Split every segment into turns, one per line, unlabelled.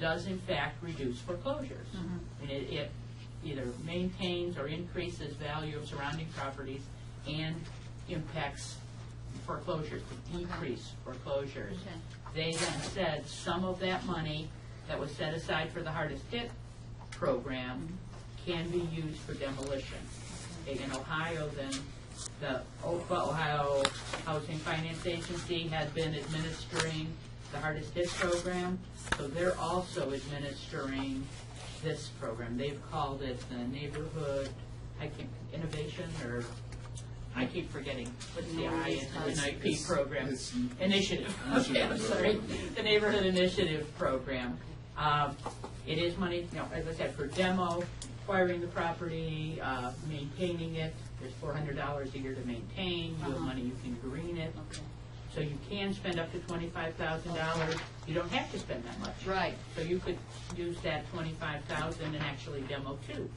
does in fact reduce foreclosures. And it, it either maintains or increases value of surrounding properties and impacts foreclosures, to decrease foreclosures.
Okay.
They then said some of that money that was set aside for the hardest hit program can be used for demolition. In Ohio, then, the OFA, Ohio Housing Finance Agency, had been administering the hardest hit program, so they're also administering this program. They've called it the Neighborhood, I keep, Innovation, or, I keep forgetting, what's the I in the NIP program?
It's-
Initiative, okay, I'm sorry, the Neighborhood Initiative Program. Um, It is money, you know, as I said, for demo, acquiring the property, uh, maintaining it, there's four hundred dollars a year to maintain, you have money, you can green it.
Okay.
So you can spend up to twenty-five thousand dollars, you don't have to spend that much.
Right.
So you could use that twenty-five thousand and actually demo too.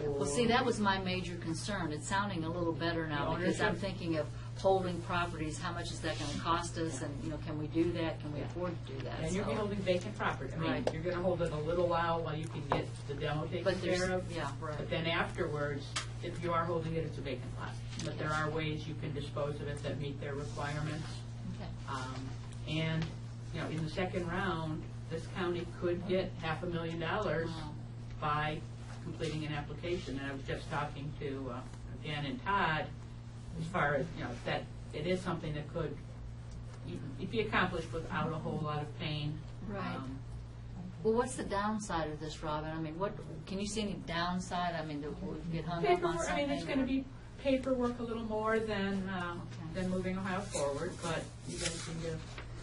Well, see, that was my major concern. It's sounding a little better now
The
because I'm
ownership?
thinking of holding properties, how much is that going to cost us? And, you know, can we do that? Can we afford to do that?
And you're
So-
holding vacant property, I mean,
Right.
you're gonna hold it a little while while you can get the demo taken
But there's-
care of.
yeah, right.
But then afterwards, if you are holding it, it's a vacant lot. But there are ways you can dispose of it that meet their requirements.
Okay.
Um, And, you know, in the second round, this county could get half a million dollars
Wow.
by completing an application. And I was just talking to uh, Dan and Todd, as far as, you know, that it is something that could e- e- be accomplished without a whole lot of pain.
Right.
Um,
Well, what's the downside of this, Robin? I mean, what, can you see any downside? I mean, that we get hung up on
Paperwork, I
something?
mean, it's going
or-
to be paperwork a little more than, um,
Okay.
than moving Ohio forward, but you guys seem to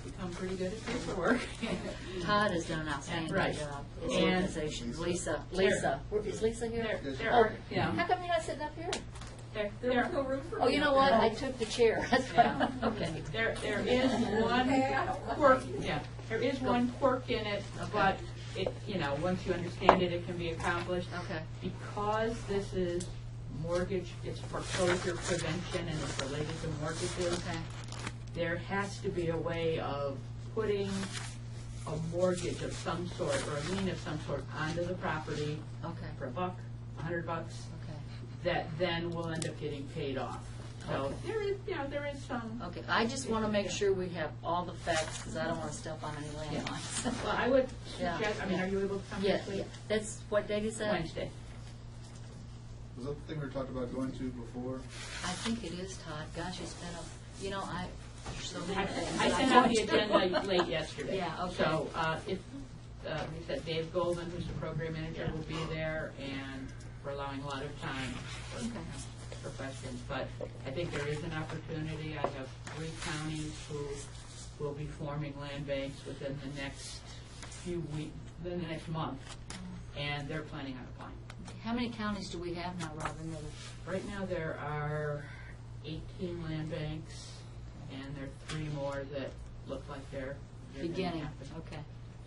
become pretty good at paperwork.
Todd has done an outstanding
Right.
job. His
And-
organizations. Lisa, Lisa, Where- is Lisa
There,
here?
there
Oh,
are, yeah.
How come you're not sitting up here?
There, there,
Oh, you know what? I took the chair.
Yeah.
Okay.
there, there is one quirk, yeah, there is one quirk in it, but it, you know, once you understand it, it can be accomplished.
Okay.
Because this is mortgage, it's foreclosure prevention and it's related to mortgages.
Okay.
there has to be a way of putting a mortgage of some sort or a lien of some sort onto the property
Okay.
for a buck, a hundred bucks,
Okay.
that then will end up getting paid off. So there is, you know, there is some,
Okay, I just want to make sure we have all the facts, because I don't want to step on any landmines.
well, I would
Yeah.
suggest, I mean, are you able to come
Yeah,
this
yeah,
week?
that's what Debbie said.
Wednesday.
Was that the thing we talked about going to before?
I think it is, Todd. Gosh, it's been a, you know, I, there's so
I
many things
I
that
sent out
don't
the
do.
agenda late yesterday.
Yeah, okay.
So, uh, if, uh, we said Dave Golden, who's the program manager, will be there, and we're allowing a lot of time for-
Okay.
for questions, but I think there is an opportunity. I have three counties who will be forming land banks within the next few weeks, within the next month, and they're planning on applying.
How many counties do we have now, Robin? that are-
Right now, there are 18 land banks, and there are three more that look like they're they're gonna
Beginning,
happen.
okay.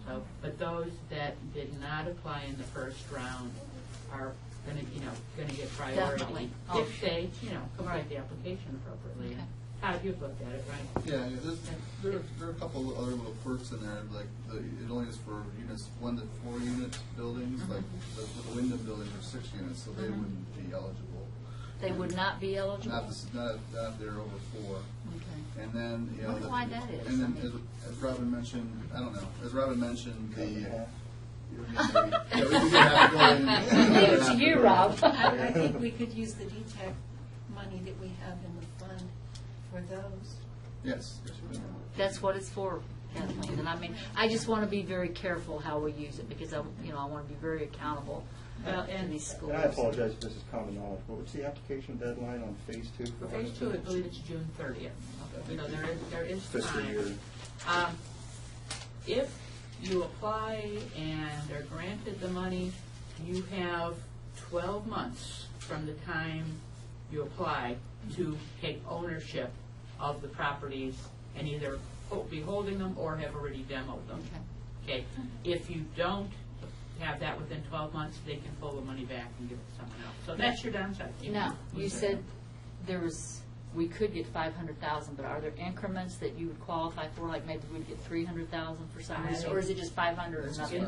So, but those that did not apply in the first round are gonna, you know, gonna get priority.
Definitely. Oh.
If they, you know, complete the application appropriately.
Okay.
Todd, you've looked at it, right?
Yeah, yeah, there's, there are, there are a couple of other little quirks in there, like, the, it only is for units, one to four unit buildings, like, the, the Wyndham buildings are six units, so
Mm-hmm.
they wouldn't be eligible.
They would not be
Not,
eligible?
this- not, not if they're over four.
Okay.
And then, you know.
Wonder
the-
why that is.
And
I
then,
mean-
as, as Robin mentioned, I don't know, as Robin mentioned, the. Yeah, we do have to go in-
Leave it to you, Rob.
I I think we could use the DTEC money that we have in the fund for those.
Yes. yes, we do.
That's what it's for, Kathleen, and I mean, I just want to be very careful how we use it, because I, you know, I want to be very accountable
Well,
to
and-
these schools.
And I apologize if this is common knowledge, but what's the application deadline on phase two?
For phase two, I believe it's June thirtieth. You know, there is, there is time.
Fiscal year.
Um, If you apply and are granted the money, you have 12 months from the time you apply to take ownership of the properties and either ho- be holding them or have already demoed them. Okay? If you don't have that within 12 months, they can pull the money back and give it to someone else. So that's your downside.
Now, you said there was, we could get five hundred thousand, but are there increments that you would qualify for, like maybe we'd get three hundred thousand for some reason, or is it just five hundred or
It's
nothing?
In